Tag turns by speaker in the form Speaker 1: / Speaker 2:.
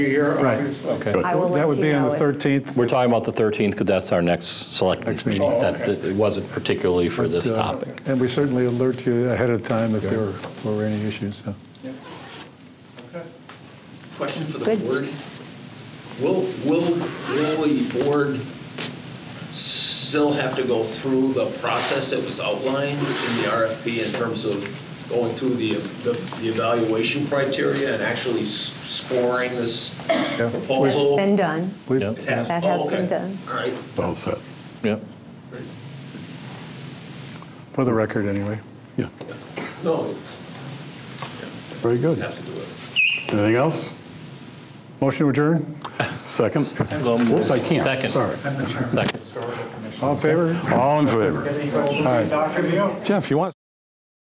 Speaker 1: Here,
Speaker 2: Right,
Speaker 1: obviously.
Speaker 3: Okay.
Speaker 2: But
Speaker 4: I will
Speaker 2: That
Speaker 4: let
Speaker 2: would
Speaker 4: you
Speaker 2: be on the
Speaker 4: know if-
Speaker 2: 13th.
Speaker 3: We're talking about the 13th because that's our next selectmen's
Speaker 2: Next meeting.
Speaker 3: meeting.
Speaker 1: Oh,
Speaker 3: That,
Speaker 1: okay.
Speaker 3: that- it wasn't particularly for this
Speaker 2: Uh,
Speaker 3: topic.
Speaker 2: And we certainly alert you ahead of time if there were any issues, so.
Speaker 1: Yeah. Okay.
Speaker 5: Question for the
Speaker 4: Good.
Speaker 5: board. Will, will, will the board still have to go through the process that was outlined in the RFP in terms of going through the, the the evaluation criteria and actually s- scoring this
Speaker 2: Yeah.
Speaker 4: That's
Speaker 5: proposal?
Speaker 4: been done.
Speaker 2: We-
Speaker 3: Yeah.
Speaker 5: It has-
Speaker 4: That
Speaker 5: oh,
Speaker 4: has
Speaker 5: okay.
Speaker 4: been done.
Speaker 5: All right.
Speaker 6: All set.
Speaker 3: Yeah.
Speaker 2: For the record, anyway.
Speaker 6: Yeah.
Speaker 5: No,
Speaker 6: Very
Speaker 5: we
Speaker 6: good.
Speaker 5: have to do it.
Speaker 6: Anything else?
Speaker 2: Motion adjourned?
Speaker 6: Second?
Speaker 3: So moved.
Speaker 6: Whoops, I can't.
Speaker 3: Second.
Speaker 6: Sorry.
Speaker 3: Second.
Speaker 2: All in favor?
Speaker 6: All in favor?
Speaker 1: Doctor Neal?
Speaker 6: Jeff, you want?